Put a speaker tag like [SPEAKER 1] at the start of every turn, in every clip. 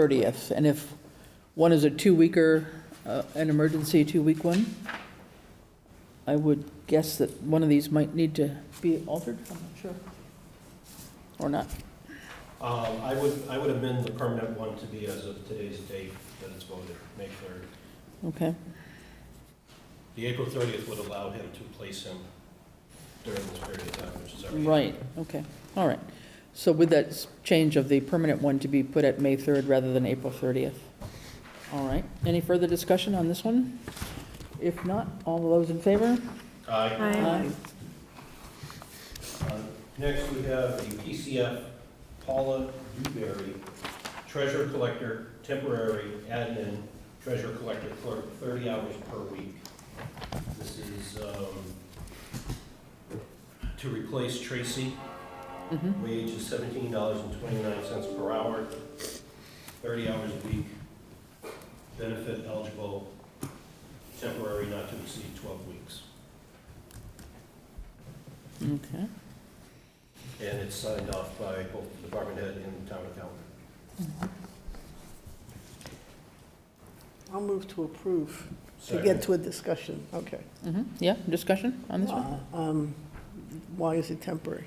[SPEAKER 1] 30th. And if one is a two-weeker, uh, an emergency two-week one, I would guess that one of these might need to be altered, I'm not sure. Or not.
[SPEAKER 2] Um, I would, I would amend the permanent one to be as of today's date that it's voted, May 3rd.
[SPEAKER 1] Okay,
[SPEAKER 2] The April 30th would allow him to place him during this period of time, which is already.
[SPEAKER 1] right, okay, all right. So with that s- change of the permanent one to be put at May 3rd rather than April 30th. All right, any further discussion on this one? If not, all those in favor?
[SPEAKER 2] Aye.
[SPEAKER 3] Aye.
[SPEAKER 2] Uh, Next, we have the PCF Paula Dewberry, treasurer collector, temporary admin, treasurer collector clerk, 30 hours per week. This is um, to replace Tracy.
[SPEAKER 1] Mhm.
[SPEAKER 2] Wage is $17.29 per hour, 30 hours a week. Benefit eligible, temporary not to exceed 12 weeks.
[SPEAKER 1] Okay,
[SPEAKER 2] And it's signed off by both the department head and the town accountant.
[SPEAKER 3] I'll move to approve, to
[SPEAKER 2] Second.
[SPEAKER 3] get to a discussion, okay.
[SPEAKER 1] mhm, yeah, discussion on this one?
[SPEAKER 3] Uh, um, Why is it temporary?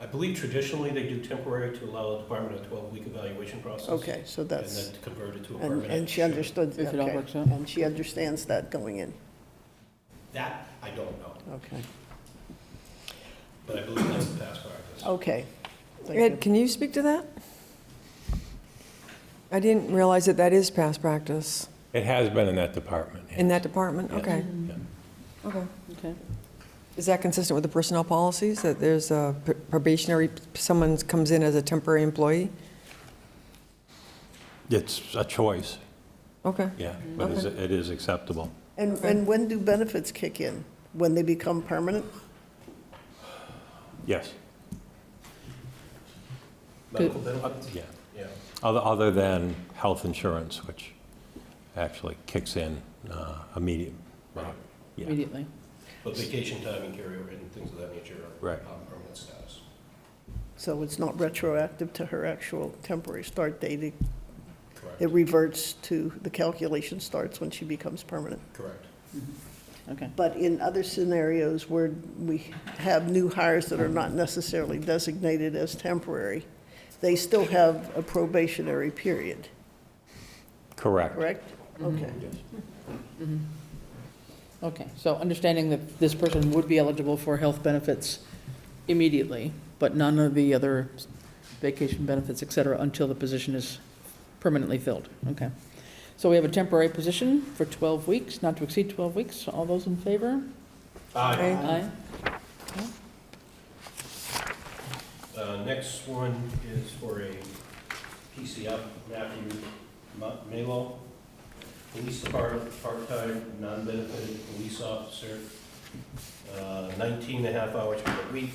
[SPEAKER 2] I believe traditionally they do temporary to allow the department a 12-week evaluation process.
[SPEAKER 3] Okay, so
[SPEAKER 2] And
[SPEAKER 3] that's,
[SPEAKER 2] then to convert it to a
[SPEAKER 3] and,
[SPEAKER 2] permanent.
[SPEAKER 3] and she understood,
[SPEAKER 1] If it all
[SPEAKER 3] okay.
[SPEAKER 1] works out.
[SPEAKER 3] And she understands that going in,
[SPEAKER 2] That, I don't know,
[SPEAKER 3] okay.
[SPEAKER 2] but I believe that's the past practice.
[SPEAKER 3] Okay. Thank you.
[SPEAKER 4] Ed, can you speak to that? I didn't realize that that is past practice
[SPEAKER 5] It has been in that department.
[SPEAKER 4] in that department, okay. Okay.
[SPEAKER 1] Okay,
[SPEAKER 4] Is that consistent with the personnel policies, that there's a probationary, someone comes in as a temporary employee?
[SPEAKER 5] It's a choice,
[SPEAKER 4] Okay,
[SPEAKER 5] yeah, but it's- it is acceptable.
[SPEAKER 3] And, and when do benefits kick in? When they become permanent?
[SPEAKER 5] Yes,
[SPEAKER 2] Medical benefits?
[SPEAKER 5] yeah.
[SPEAKER 2] Yeah.
[SPEAKER 5] Other other than health insurance, which actually kicks in uh, immediate.
[SPEAKER 2] Right.
[SPEAKER 5] Yeah,
[SPEAKER 1] immediately.
[SPEAKER 2] But vacation time and carryover and things of that nature are
[SPEAKER 5] Right.
[SPEAKER 2] on permanent status.
[SPEAKER 3] So it's not retroactive to her actual temporary start date. It- It
[SPEAKER 2] Correct,
[SPEAKER 3] reverts to, the calculation starts when she becomes permanent.
[SPEAKER 2] correct.
[SPEAKER 1] Okay,
[SPEAKER 3] But in other scenarios where we have new hires that are not necessarily designated as temporary, they still have a probationary period,
[SPEAKER 5] correct.
[SPEAKER 3] correct?
[SPEAKER 1] Mm-hmm.
[SPEAKER 3] Okay.
[SPEAKER 5] Yes.
[SPEAKER 1] okay. So understanding that this person would be eligible for health benefits immediately, but none of the other vacation benefits, et cetera, until the position is permanently filled. Okay. So we have a temporary position for 12 weeks, not to exceed 12 weeks. All those in favor?
[SPEAKER 2] Aye.
[SPEAKER 4] Aye.
[SPEAKER 1] Aye.
[SPEAKER 2] Uh, Next one is for a PCF, Matthew Ma- Malo, police department, part-time, non-benefited police officer, uh, 19 and a half hours per week,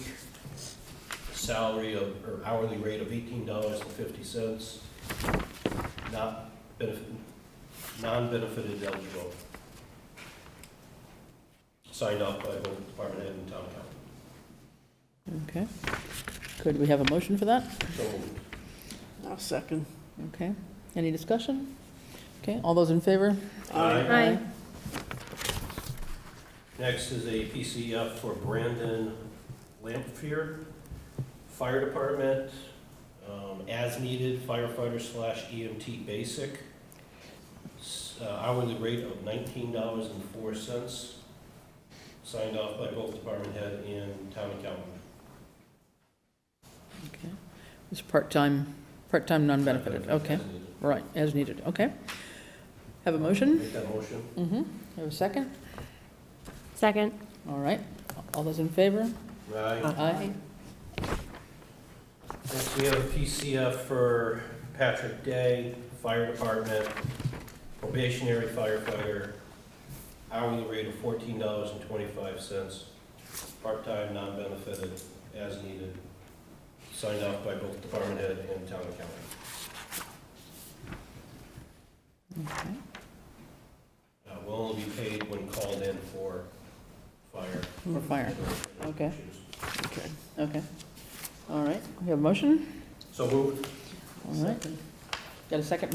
[SPEAKER 2] salary of, or hourly rate of $18.50, not benefit, non-benefited eligible. Signed off by both department head and town council.
[SPEAKER 1] Okay. Could we have a motion for that?
[SPEAKER 2] So moved.
[SPEAKER 3] I'll second.
[SPEAKER 1] Okay. Any discussion? Okay, all those in favor?
[SPEAKER 2] Aye.
[SPEAKER 1] Aye.
[SPEAKER 2] Next is a PCF for Brandon Lamphere, Fire Department, um, as needed firefighter slash EMT basic. S- uh, Hourly rate of nineteen dollars and four cents, signed off by both department head and town accountant.
[SPEAKER 1] Okay. It's part-time, part-time, non-benefited. Okay.
[SPEAKER 2] As needed.
[SPEAKER 1] Right, as needed, okay. Have a motion?
[SPEAKER 2] Make that motion.
[SPEAKER 1] Mm-hmm. Have a second?
[SPEAKER 6] Second.
[SPEAKER 1] All right. All those in favor?
[SPEAKER 2] Aye.
[SPEAKER 1] Aye.
[SPEAKER 2] Next, we have a PCF for Patrick Day, Fire Department, probationary firefighter, hourly rate of fourteen dollars and twenty-five cents, part-time, non-benefited, as needed, signed off by both department head and town accountant.
[SPEAKER 1] Okay.
[SPEAKER 2] Uh, Will only be paid when called in for fire.
[SPEAKER 1] For fire, Okay.
[SPEAKER 3] Okay.
[SPEAKER 1] okay. All right, we have a motion?
[SPEAKER 2] So moved.
[SPEAKER 1] All right. Got a second?